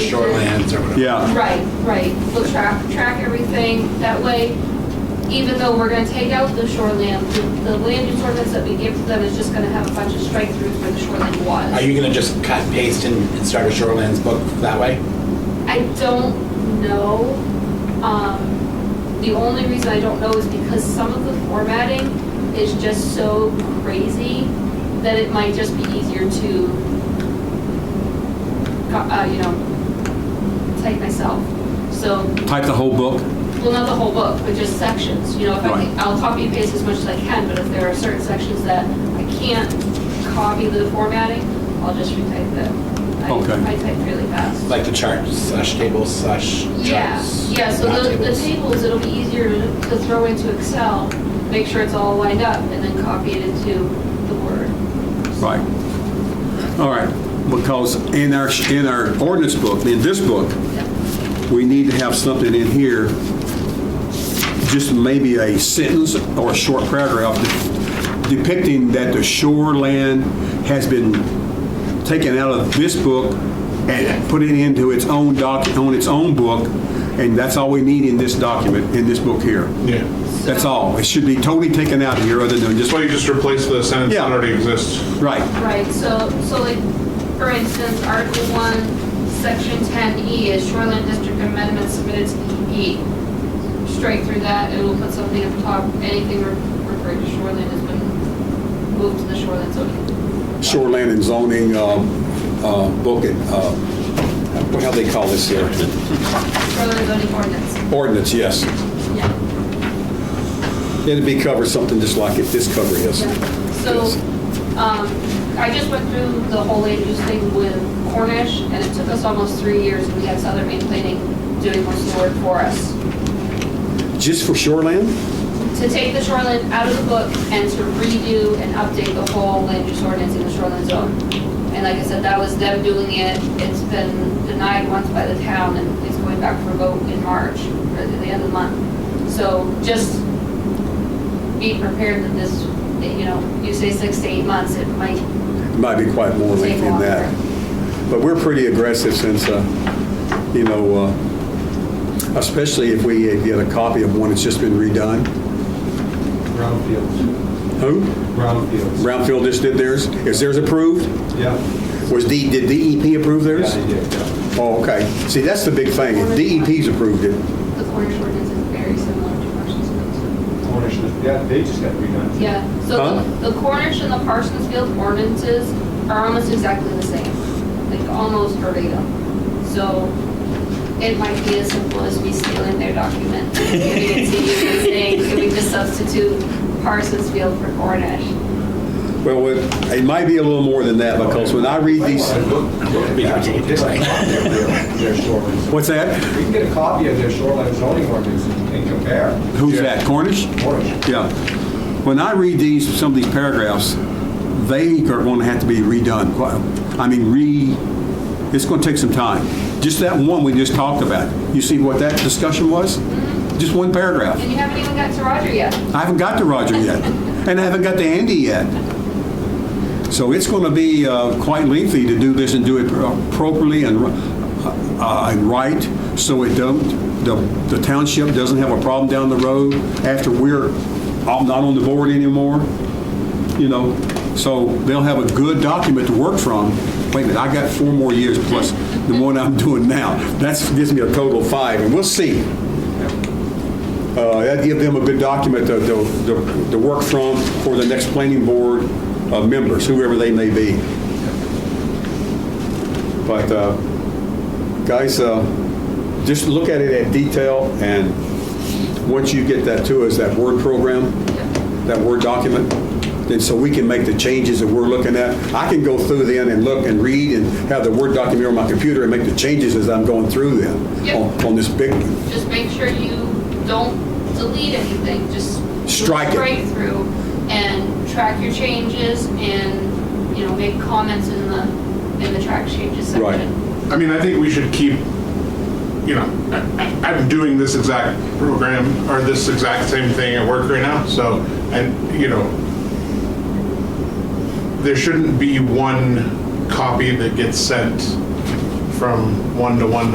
Yeah. Right, right. We'll track, track everything. That way, even though we're gonna take out the shoreland, the the land use ordinance that we give to them is just gonna have a bunch of strike throughs where the shoreland Are was. you gonna just cut and paste and and start a shorelands book that way? I don't know. Um, the only reason I don't know is because some of the formatting is just so crazy that it might just be easier to, co- uh, you know, type myself. So Type the whole book? Well, not the whole book, but just sections, you know, if I, Right. can- I'll copy and paste as much as I can, but if there are certain sections that I can't copy the formatting, I'll just retype them. I- Okay. I type really fast. Like the charts slash tables slash Yeah, charts? yeah, so not the, the tables. tables, it'll be easier to to throw into Excel, make sure it's all lined up, and then copy it into the Word. Right. All right, because in our, in our ordinance book, in this book, Yep. we need to have something in here, just maybe a sentence or a short paragraph depicting that the shoreland has been taken out of this book and put it into its own doc, on its own book, and that's all we need in this document, in this book here. Yeah. That's all. It should be totally taken out of here, other than just, That's why you just replace the sentence Yeah. that already exists. right, Right, so, so like, for instance, Article one, Section ten E is shoreline district amendment submitted to DEP. Straight through that, and we'll put something at the top, anything re- referring to shoreline has been moved to the shoreline zone. shoreland and zoning, uh, uh, book, and, uh, what, how they call this here? Shoreline zoning ordinance, Ordinance, yes. yeah, It'd be covered something just like it, this cover is. yeah. So, um, I just went through the whole land use thing with Cornish, and it took us almost three years, and we had Southern Maine Planning doing most of the work for us. Just for shoreland? to take the shoreline out of the book and to redo and update the whole land use ordinance in the shoreline zone. And like I said, that was them doing it. It's been denied once by the town and it's going back for a vote in March, or at the end of the month. So just be prepared that this, you know, you say six to eight months, it might, Might be quite more Take lengthy than that. But we're pretty aggressive since, uh, you know, uh, especially if we get a copy of one that's just been redone. Brownfields, Who? brownfields. Brownfield just did theirs. Is theirs approved? Yeah. Was D, did DEP approve theirs? Yeah, yeah, yeah. Oh, okay. See, that's the big thing. If DEP's approved it. the Cornish ordinance is very similar to Parsons Field. Cornish, yeah, they just got redone. too. Yeah, so the- the Cornish and the Parsons Field ordinances are almost exactly the same, like almost verbatim. So it might be as simple as me stealing their document, giving it to you and saying, can we just substitute Parsons Field for Cornish? Well, it it might be a little more than that because when I read these, Their shorelines. what's that? We can get a copy of their shoreline zoning ordinance and compare. Who's that? Cornish? Cornish. Yeah. When I read these, some of these paragraphs, they are going to have to be redone. Quite- I mean, re, it's going to take some time. Just that one we just talked about. You see what that discussion was? Just one paragraph. And you haven't even got to Roger yet. I haven't got to Roger yet, and I haven't got to Andy yet. So it's going to be uh, quite lengthy to do this and do it properly and uh, and right, so it don't, the the township doesn't have a problem down the road after we're all not on the board anymore, you know? So they'll have a good document to work from. Wait a minute, I got four more years plus the one I'm doing now. That gives me a total of five, and we'll see. Uh, That'd give them a good document to, to, to- to work from for the next planning board uh, members, whoever they may be. But, uh, guys, uh, just look at it in detail, and once you get that to us, that Word program, that Word document, then so we can make the changes that we're looking at. I can go through then and look and read and have the Word document on my computer and make the changes as I'm going through them Yep. on- on this big Just make sure you don't delete anything, just. do a Strike it. Straight through and track your changes and, you know, make comments in the, in the track changes section. Right. I mean, I think we should keep, you know, I, I- I'm doing this exact program or this exact same thing at work right now. So, and, you know, there shouldn't be one copy that gets sent from one to one